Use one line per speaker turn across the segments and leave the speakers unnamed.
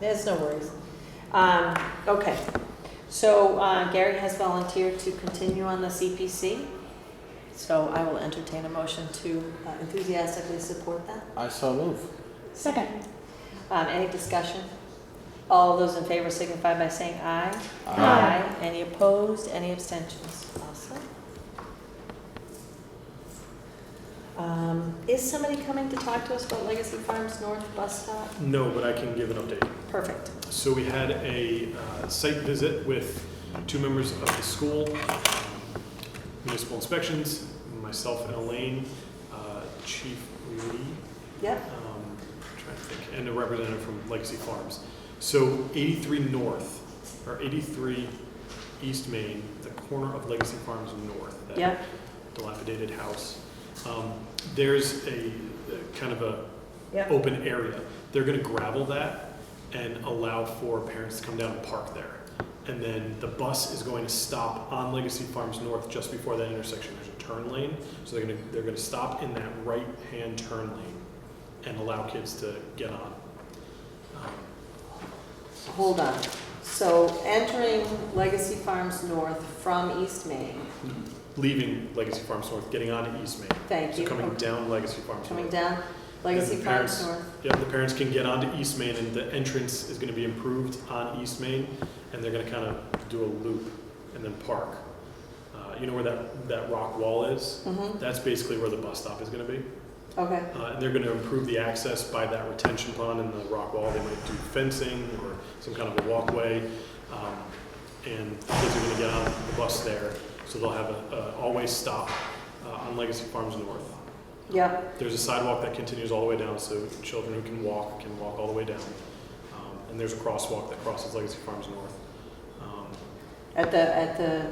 There's no worries. Um, okay, so uh, Gary has volunteered to continue on the CPC. So I will entertain a motion to uh, enthusiastically support that.
I so move.
Second.
Um, any discussion? All those in favor signify by saying aye. Ah.
Aye.
Any opposed, any abstentions? Awesome. Um, is somebody coming to talk to us about Legacy Farms North Bus Stop?
No, but I can give an update.
Perfect.
So we had a uh, site visit with two members of the school, municipal inspections, myself and Elaine, uh, Chief Lee,
Yep,
um, trying to think, and a representative from Legacy Farms. So 83 North, or 83 East Main, the corner of Legacy Farms North, that
yep,
dilapidated house. Um, There's a, a kind of a
yep.
open area. They're gonna gravel that and allow for parents to come down and park there. And then the bus is going to stop on Legacy Farms North just before that intersection. There's a turn lane, so they're gonna, they're gonna stop in that right-hand turn lane and allow kids to get on. Um,
Hold on. So entering Legacy Farms North from East Main,
Leaving Legacy Farms North, getting on to East Main.
thank
So
you.
coming down Legacy Farms
Coming
North.
down, Legacy
the
Farms
parents-
North.
Yep, the parents can get onto East Main and the entrance is gonna be improved on East Main and they're gonna kind of do a loop and then park. Uh, you know where that, that rock wall is?
Mm-hmm,
That's basically where the bus stop is gonna be.
okay,
Uh, and they're gonna improve the access by that retention pond and the rock wall. They might do fencing or some kind of a walkway. Um, and the kids are gonna get on the bus there, so they'll have a, a always stop uh, on Legacy Farms North.
yep,
There's a sidewalk that continues all the way down, so children who can walk can walk all the way down. Um, And there's a crosswalk that crosses Legacy Farms North um,
at the, at the,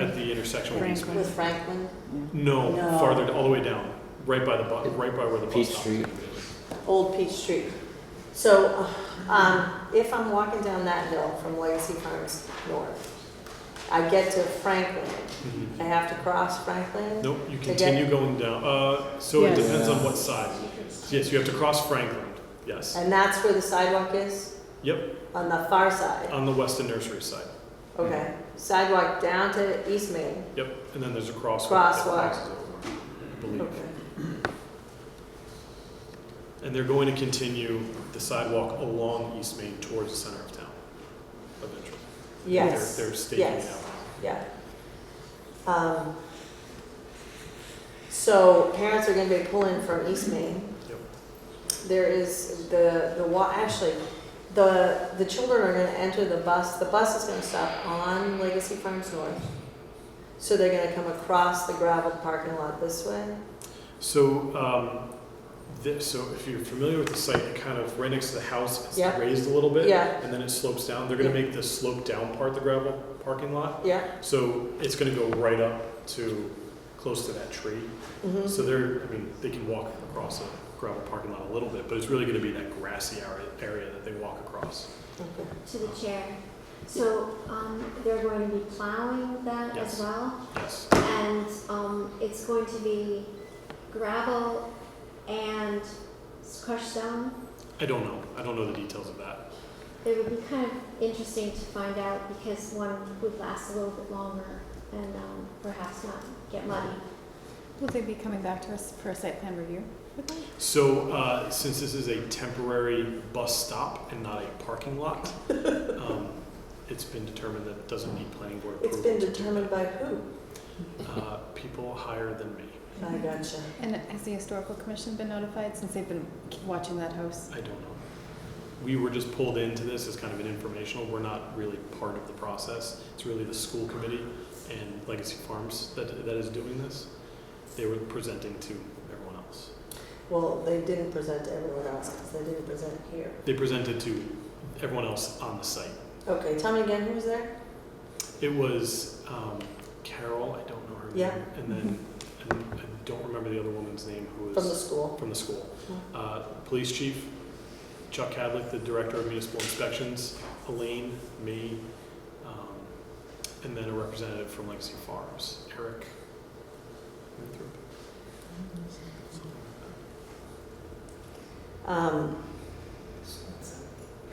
at the intersection. with East-
with Franklin.
No,
No.
farther, all the way down, right by the, bu- right by where the
Peach
bus stop
Street.
is.
Old Peach Street. So, um, if I'm walking down that hill from Legacy Farms North, I get to Franklin,
Mhm.
I have to cross Franklin?
Nope, you
Again.
continue going down, uh, so it
Yes.
depends on what side. Yes, you have to cross Franklin, yes,
And that's where the sidewalk is,
yep, Uh,
on the far side?
on the Weston Nursery side,
Okay, sidewalk down to East Main,
yep, and then there's a crosswalk. that
Crosswalk.
crosses over, I believe.
okay.
And they're going to continue the sidewalk along East Main towards the center of town eventually.
Yes.
They're, they're staking it
yes.
out.
Yeah. Um, So parents are gonna be pulling from East Main.
Yep.
There is the, the wa, actually, the, the children are gonna enter the bus, the bus is gonna stop on Legacy Farms North. So they're gonna come across the gravel parking lot this way?
So, um, this, so if you're familiar with the site, it kind of right next to the house, it's
Yeah.
raised a little bit.
Yeah.
And then it slopes down. They're gonna make the slope down part the gravel parking lot.
Yeah?
So it's gonna go right up to, close to that tree.
Mm-hmm,
So they're, I mean, they can walk across a gravel parking lot a little bit, but it's really gonna be that grassy area, area that they walk across.
okay.
To the chair. So, um, they're going to be plowing that
Yes.
as
Uh-huh.
well?
Yes.
And, um, it's going to be gravel and s- crushed stone?
I don't know. I don't know the details of that.
It would be kind of interesting to find out because one would last a little bit longer and, um, perhaps not get muddy.
Will they be coming back to us for a site plan review?
So, uh, since this is a temporary bus stop and not a parking lot, um, it's been determined that it doesn't need planning board
It's
approval.
been determined by who?
Uh, people higher than me.
I gotcha.
And has the historical commission been notified since they've been watching that house?
I don't know. We were just pulled into this as kind of an informational. We're not really part of the process. It's really the school committee and Legacy Farms that, that is doing this. They were presenting to everyone else.
Well, they didn't present to everyone else, because they didn't present here.
They presented to everyone else on the site.
Okay, tell me again, who was there?
It was um, Carol, I don't know her
Yeah.
name, and then and I don't remember the other woman's name who was
From the school?
from the school.
Hmm.
Uh, police chief, Chuck Cadlick, the director of municipal inspections, Elaine, me, um, and then a representative from Legacy Farms, Eric. Winthrop.
Um,